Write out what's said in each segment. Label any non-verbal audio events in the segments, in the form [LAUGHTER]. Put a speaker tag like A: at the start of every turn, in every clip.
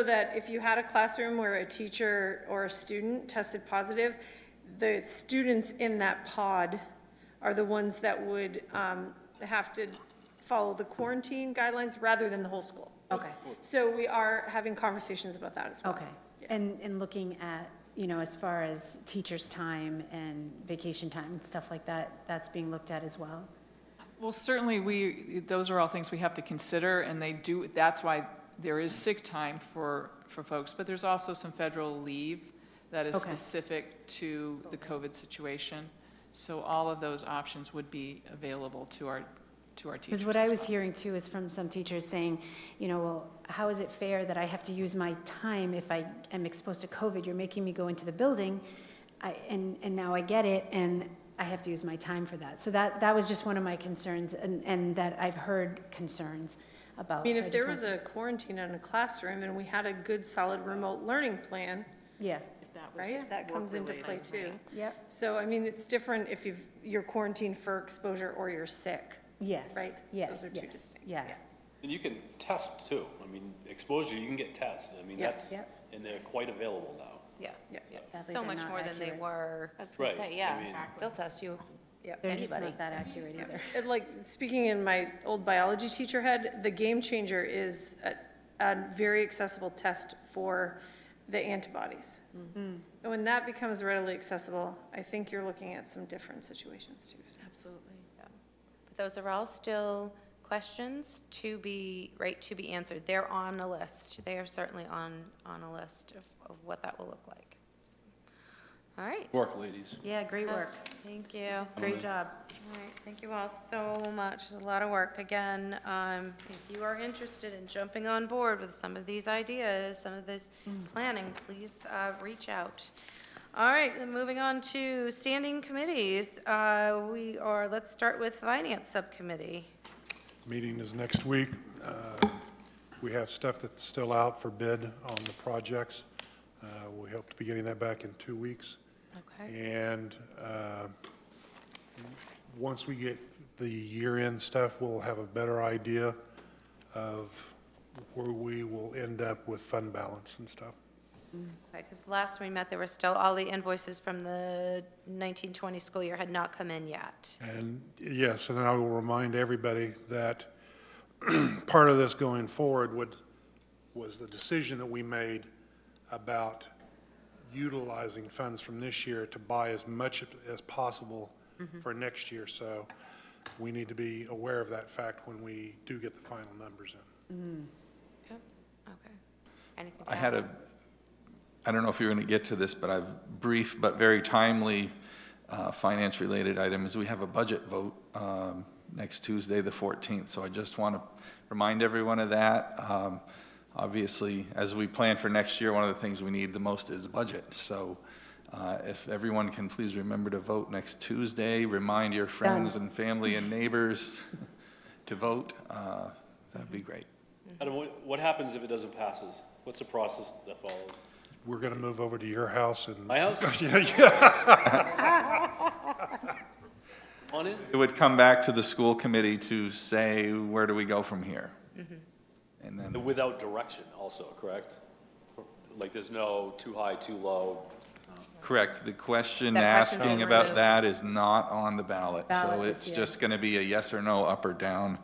A: So that if you had a classroom where a teacher or a student tested positive, the students in that pod are the ones that would um, have to follow the quarantine guidelines rather than the whole school.
B: Okay,
A: So we are having conversations about that as well.
B: okay. And, and looking at, you know, as far as teachers' time and vacation time and stuff like that, that's being looked at as well?
C: Well, certainly, we, those are all things we have to consider, and they do, that's why there is sick time for, for folks, but there's also some federal leave that is
B: Okay.
C: specific to the COVID situation. So all of those options would be available to our, to our teachers
B: Because what I
C: as
B: was
C: well.
B: hearing too is from some teachers saying, you know, well, how is it fair that I have to use my time if I am exposed to COVID? You're making me go into the building, I, and, and now I get it, and I have to use my time for that. So that, that was just one of my concerns, and, and that I've heard concerns about.
A: I mean,
B: So
A: if
B: just
A: there
B: want-
A: was a quarantine in a classroom and we had a good, solid remote learning plan,
B: Yeah,
A: right, that comes into play too.
B: yep,
A: So, I mean, it's different if you've, you're quarantined for exposure or you're sick.
B: yes.
A: Right,
B: Yes,
A: those are two
B: yes,
A: distinct,
B: yeah.
A: yeah.
D: And you can test too. I mean, exposure, you can get tests. I mean,
A: Yes.
D: that's, and they're quite available now.
E: Yeah,
A: Yeah.
B: Sadly,
E: so
B: they're
E: much
B: not
E: more than they
B: accurate.
E: were.
F: I was gonna
D: Right,
F: say,
D: I mean-
F: yeah, they'll test you.
B: They're just
F: Anybody.
B: not that accurate either.
A: It, like, speaking in my old biology teacher head, the game changer is a, a very accessible test for the antibodies. And when that becomes readily accessible, I think you're looking at some different situations too. so.
F: Absolutely.
E: But Those are all still questions to be, right, to be answered. They're on a list. They are certainly on, on a list of, of what that will look like. So, All right.
D: Work, ladies.
B: Yeah, great work,
E: Thank you.
B: great job.
E: All right, thank you all so much. It's a lot of work. Again, um, if you are interested in jumping on board with some of these ideas, some of this planning, please uh, reach out. All right, then moving on to standing committees. Uh, We are, let's start with Finance Subcommittee.
G: Meeting is next week. Uh, We have stuff that's still out for bid on the projects. Uh, We hope to be getting that back in two weeks.
E: Okay.
G: And uh, once we get the year-end stuff, we'll have a better idea of where we will end up with fund balance and stuff.
E: Because last we met, there were still, all the invoices from the 1920 school year had not come in yet.
G: And yes, and I will remind everybody that [CLEARS THROAT] part of this going forward would, was the decision that we made about utilizing funds from this year to buy as much as possible
D: Mm-hmm.
G: for next year. So we need to be aware of that fact when we do get the final numbers in.
E: Yep, okay. Anything to
H: I
E: add?
H: had a, I don't know if you're going to get to this, but I've brief but very timely uh, finance-related items. We have a budget vote um, next Tuesday, the 14th, so I just want to remind everyone of that. Um, Obviously, as we plan for next year, one of the things we need the most is budget. So uh, if everyone can please remember to vote next Tuesday, remind your friends and family and neighbors [LAUGHS] to vote, uh, that'd be great.
D: Adam, what, what happens if it doesn't passes? What's the process that follows?
G: We're going to move over to your house and,
D: My house?
G: [LAUGHS] yeah, yeah,
D: On it?
H: It would come back to the school committee to say, where do we go from here?
E: Mm-hmm.
H: And then,
D: Without direction also, correct? Like, there's no too high, too low.
H: correct, the question
E: That question's
H: asking
E: been
H: about
E: removed.
H: that is not on the ballot. So
B: Ballot is,
H: it's
B: yeah.
H: just going to be a yes or no, up or down.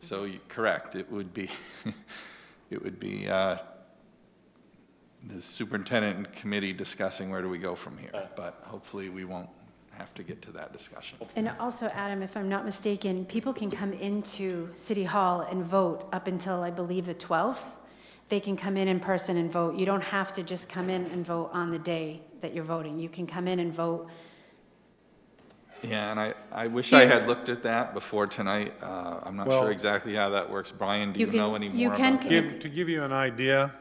H: So,
E: Mm-hmm.
H: you- correct, it would be, [LAUGHS] it would be uh, the superintendent and committee discussing where do we go from here. But hopefully, we won't have to get to that discussion.
B: And also, Adam, if I'm not mistaken, people can come into City Hall and vote up until, I believe, the 12th. They can come in in person and vote. You don't have to just come in and vote on the day that you're voting. You can come in and vote.
H: Yeah, and I, I wish I had looked at that before tonight. Uh, I'm not
G: Well-
H: sure exactly how that works. Brian, do
B: You
H: you
B: can-
H: know any
B: you
H: more
B: can
H: about
B: con-
H: that?
G: Give- To give you an idea,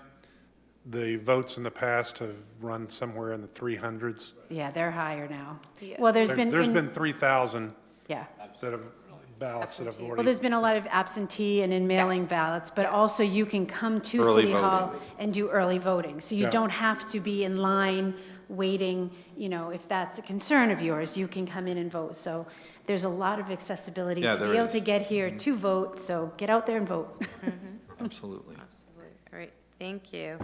G: the votes in the past have run somewhere in the 300s.
B: Yeah, they're higher now.
E: Yeah.
B: Well, there's been.
G: There- There's
B: in-
G: been 3,000
B: Yeah.
G: that have, ballots that have already.
B: Well, there's been a lot of absentee and in mailing
E: Yes,
B: ballots, but also you can come to
H: Early
B: City Hall
H: voting.
B: and do early voting. So you
G: Yeah.
B: don't have to be in line waiting, you know, if that's a concern of yours, you can come in and vote. So there's a lot of accessibility
H: Yeah,
B: to be
H: there
B: able to
H: is.
E: Mm-hmm.
B: get here to vote, [LAUGHS] so get out there and vote.
E: Absolutely.
H: Absolutely.
E: All right, Thank you.